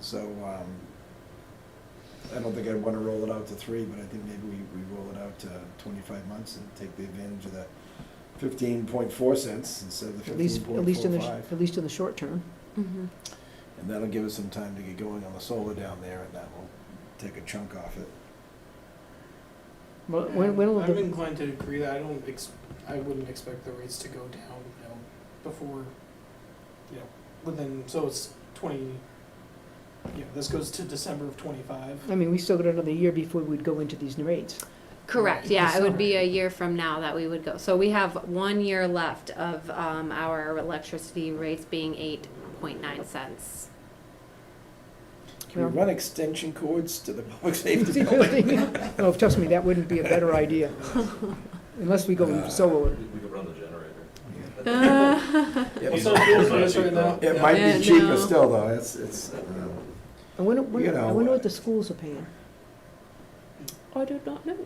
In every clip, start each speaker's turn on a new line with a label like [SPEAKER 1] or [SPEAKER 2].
[SPEAKER 1] So, um, I don't think I'd wanna roll it out to three, but I think maybe we, we roll it out to twenty-five months and take the advantage of the fifteen point four cents instead of the
[SPEAKER 2] At
[SPEAKER 1] fifteen
[SPEAKER 2] least, at
[SPEAKER 1] point
[SPEAKER 2] least in
[SPEAKER 1] four
[SPEAKER 2] the,
[SPEAKER 1] five.
[SPEAKER 2] at least in the short term.
[SPEAKER 3] Mhm.
[SPEAKER 1] And that'll give us some time to get going on the solar down there, and that will take a chunk off it.
[SPEAKER 2] Well, when, when will
[SPEAKER 4] I'm
[SPEAKER 2] the,
[SPEAKER 4] inclined to agree that I don't ex, I wouldn't expect the rates to go down, you know, before, you know, within, so it's twenty, you know, this goes to December of twenty-five.
[SPEAKER 2] I mean, we still got another year before we'd go into these new rates.
[SPEAKER 3] Correct,
[SPEAKER 4] Right.
[SPEAKER 3] yeah,
[SPEAKER 4] This
[SPEAKER 3] it would be
[SPEAKER 4] summer.
[SPEAKER 3] a year from now that we would go. So we have one year left of um, our electricity rates being eight point nine cents.
[SPEAKER 1] Can we
[SPEAKER 2] Yeah.
[SPEAKER 1] run extension cords to the public safety building?
[SPEAKER 2] No, oh, trust me, that wouldn't be a better idea, unless we go solar.
[SPEAKER 5] Uh, We could run the generator.
[SPEAKER 2] Uh,
[SPEAKER 1] Yeah,
[SPEAKER 4] Well, so fuel's nice right now.
[SPEAKER 1] It might
[SPEAKER 3] Yeah,
[SPEAKER 1] be cheaper
[SPEAKER 3] no.
[SPEAKER 1] still, though, it's, it's, uh, you know.
[SPEAKER 2] I wonder,
[SPEAKER 1] You
[SPEAKER 2] wonder- I
[SPEAKER 1] know,
[SPEAKER 2] wonder
[SPEAKER 1] uh,
[SPEAKER 2] what the schools are paying.
[SPEAKER 3] I do not know.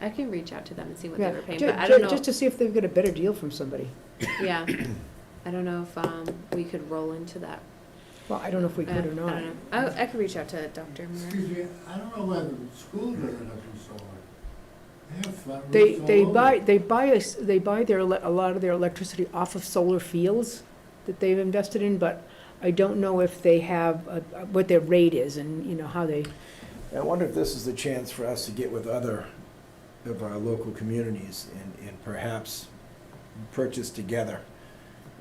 [SPEAKER 3] I can reach out to them and see what they
[SPEAKER 2] Yeah,
[SPEAKER 3] were paying,
[SPEAKER 2] ju-
[SPEAKER 3] but I
[SPEAKER 2] ju-
[SPEAKER 3] don't know,
[SPEAKER 2] Just to see if they've got a better deal from somebody.
[SPEAKER 3] yeah. I don't know if um, we could roll into that.
[SPEAKER 2] Well, I don't know if we
[SPEAKER 3] Uh, I
[SPEAKER 2] could or
[SPEAKER 3] don't
[SPEAKER 2] not.
[SPEAKER 3] know. I, I could reach out to Dr. Moore.
[SPEAKER 6] Excuse me, I don't know whether the school doesn't have to solve it. They have flat roofs
[SPEAKER 2] They,
[SPEAKER 6] all
[SPEAKER 2] they
[SPEAKER 6] over.
[SPEAKER 2] buy, they buy, us- they buy their, ele- a lot of their electricity off of solar fields that they've invested in, but I don't know if they have, uh, uh, what their rate is and, you know, how they,
[SPEAKER 1] I wonder if this is the chance for us to get with other of our local communities and, and perhaps purchase together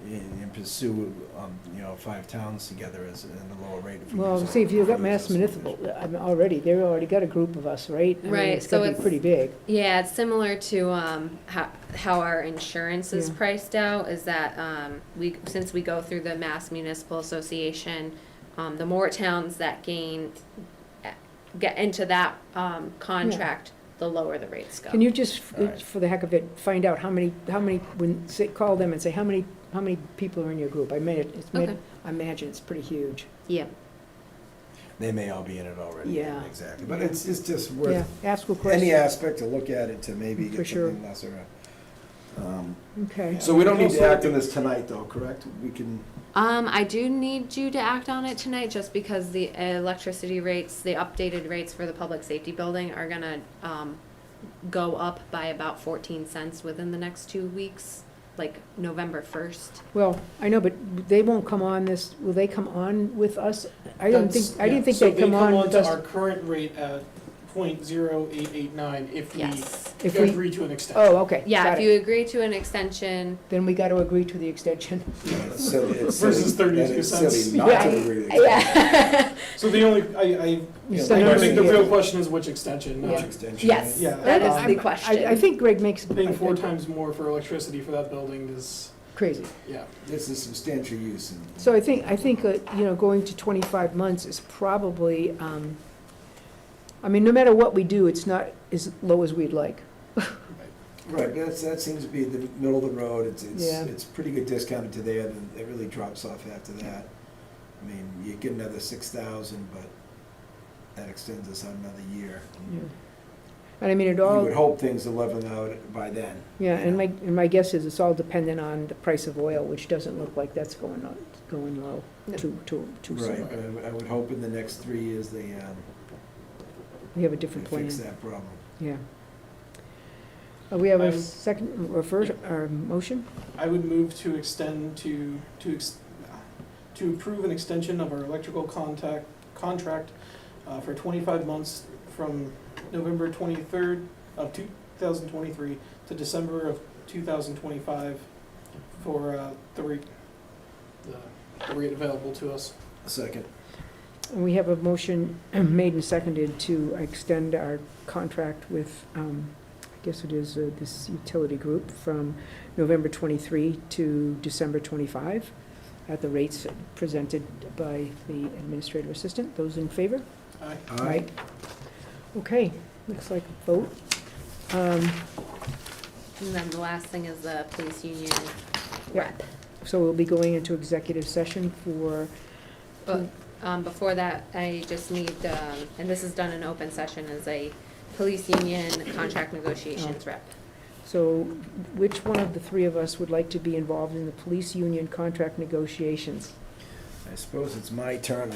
[SPEAKER 1] and, and pursue, um, you know, five towns together as, in the lower rate. if we
[SPEAKER 2] well,
[SPEAKER 1] use-
[SPEAKER 2] see, if you've got
[SPEAKER 1] use
[SPEAKER 2] Mass
[SPEAKER 1] this
[SPEAKER 2] Municipal, I mean, already, they've already got a group of us, right? I mean,
[SPEAKER 3] Right,
[SPEAKER 2] It's gonna
[SPEAKER 3] so
[SPEAKER 2] be
[SPEAKER 3] it's-
[SPEAKER 2] pretty big.
[SPEAKER 3] Yeah, it's similar to um, how, how our insurance is
[SPEAKER 2] Yeah.
[SPEAKER 3] priced out, is that um, we, since we go through the Mass Municipal Association, um, the more towns that gain, get into that um, contract, the lower the rates go.
[SPEAKER 2] Can you just,
[SPEAKER 1] All right.
[SPEAKER 2] for the heck of it, find out how many, how many, when, say, call them and say, how many, how many people are in your group? I may, it's, may-
[SPEAKER 3] Okay.
[SPEAKER 2] I imagine it's pretty huge.
[SPEAKER 3] Yeah,
[SPEAKER 1] They may all be in it already.
[SPEAKER 2] Yeah.
[SPEAKER 1] Exactly, but it's, it's just
[SPEAKER 2] Yeah,
[SPEAKER 1] worth
[SPEAKER 2] ask a question.
[SPEAKER 1] any aspect to look at it to maybe
[SPEAKER 2] For
[SPEAKER 1] get
[SPEAKER 2] sure.
[SPEAKER 1] something lesser. um,
[SPEAKER 2] Okay.
[SPEAKER 1] So we don't need to
[SPEAKER 4] Also-
[SPEAKER 1] act on this tonight, though, correct? We can,
[SPEAKER 3] um, I do need you to act on it tonight, just because the electricity rates, the updated rates for the public safety building are gonna um, go up by about fourteen cents within the next two weeks, like November first.
[SPEAKER 2] Well, I know, but they won't come on this, will they come on with us? I don't think, I didn't think they'd come on with
[SPEAKER 4] So they come on to our
[SPEAKER 2] us.
[SPEAKER 4] current rate at point zero eight eight nine if we
[SPEAKER 3] Yes.
[SPEAKER 2] If we,
[SPEAKER 4] agree to an extension.
[SPEAKER 2] oh, okay,
[SPEAKER 3] Yeah,
[SPEAKER 2] got
[SPEAKER 3] if
[SPEAKER 2] it.
[SPEAKER 3] you agree to an extension,
[SPEAKER 2] Then we got to agree to the extension.
[SPEAKER 1] so it's silly.
[SPEAKER 4] Versus 32
[SPEAKER 1] and it's silly
[SPEAKER 4] cents.
[SPEAKER 1] not to
[SPEAKER 2] Yeah.
[SPEAKER 1] agree with
[SPEAKER 3] yeah,
[SPEAKER 2] Oh.
[SPEAKER 4] So the only, I, I,
[SPEAKER 2] We
[SPEAKER 1] Yeah,
[SPEAKER 2] still
[SPEAKER 4] I
[SPEAKER 2] have
[SPEAKER 4] think
[SPEAKER 2] to
[SPEAKER 4] the
[SPEAKER 2] get-
[SPEAKER 4] real question is which extension,
[SPEAKER 1] Much
[SPEAKER 4] not
[SPEAKER 2] Yeah.
[SPEAKER 1] extension.
[SPEAKER 3] yes,
[SPEAKER 4] Yeah.
[SPEAKER 3] that is
[SPEAKER 2] Um,
[SPEAKER 3] the
[SPEAKER 2] I-
[SPEAKER 3] question.
[SPEAKER 2] I, I think Greg makes
[SPEAKER 4] paying four
[SPEAKER 2] uh,
[SPEAKER 4] times more for electricity for that building is,
[SPEAKER 2] crazy.
[SPEAKER 4] yeah.
[SPEAKER 1] This is substantial use and.
[SPEAKER 2] So I think, I think, uh, you know, going to 25 months is probably, um, I mean, no matter what we do, it's not as low as we'd like.
[SPEAKER 1] Right, that's, that seems to be the middle of the road, it's, it's,
[SPEAKER 2] Yeah.
[SPEAKER 1] it's pretty good discounted to there, then it really drops off after that. I mean, you get another six thousand, but that extends us out another year.
[SPEAKER 2] And I mean, it
[SPEAKER 1] You
[SPEAKER 2] all.
[SPEAKER 1] would hope things are leveling out by then.
[SPEAKER 2] Yeah, and my, and my guess is it's all dependent on the price of oil, which doesn't look like that's going up, going low too, too, too
[SPEAKER 1] Right,
[SPEAKER 2] soon.
[SPEAKER 1] but I would- I would hope in the next three years they, um,
[SPEAKER 2] We have a
[SPEAKER 1] they
[SPEAKER 2] different plan,
[SPEAKER 1] fix that problem.
[SPEAKER 2] yeah. Uh, We have
[SPEAKER 4] I
[SPEAKER 2] a
[SPEAKER 4] would-
[SPEAKER 2] second, or first, or motion?
[SPEAKER 4] I would move to extend to, to, ex- to approve an extension of our electrical contact, contract uh, for twenty-five months from November twenty-third of two thousand twenty-three to December of two thousand twenty-five for uh, the rate, the- the rate available to us.
[SPEAKER 1] Second,
[SPEAKER 2] And we have a motion made and seconded to extend our contract with, um, I guess it is uh, this utility group from November 23 to December 25 at the rates presented by the administrative assistant. Those in favor?
[SPEAKER 4] Aye.
[SPEAKER 1] aye,
[SPEAKER 2] Okay, looks like a vote. Um,
[SPEAKER 3] And then the last thing is the police union
[SPEAKER 2] Yeah.
[SPEAKER 3] rep.
[SPEAKER 2] So we'll be going into executive session for,
[SPEAKER 3] But um, before that, I just need, um, and this is done in open session, is a police union contract
[SPEAKER 2] Oh.
[SPEAKER 3] negotiations rep.
[SPEAKER 2] so which one of the three of us would like to be involved in the police union contract negotiations?
[SPEAKER 1] I suppose it's my turn,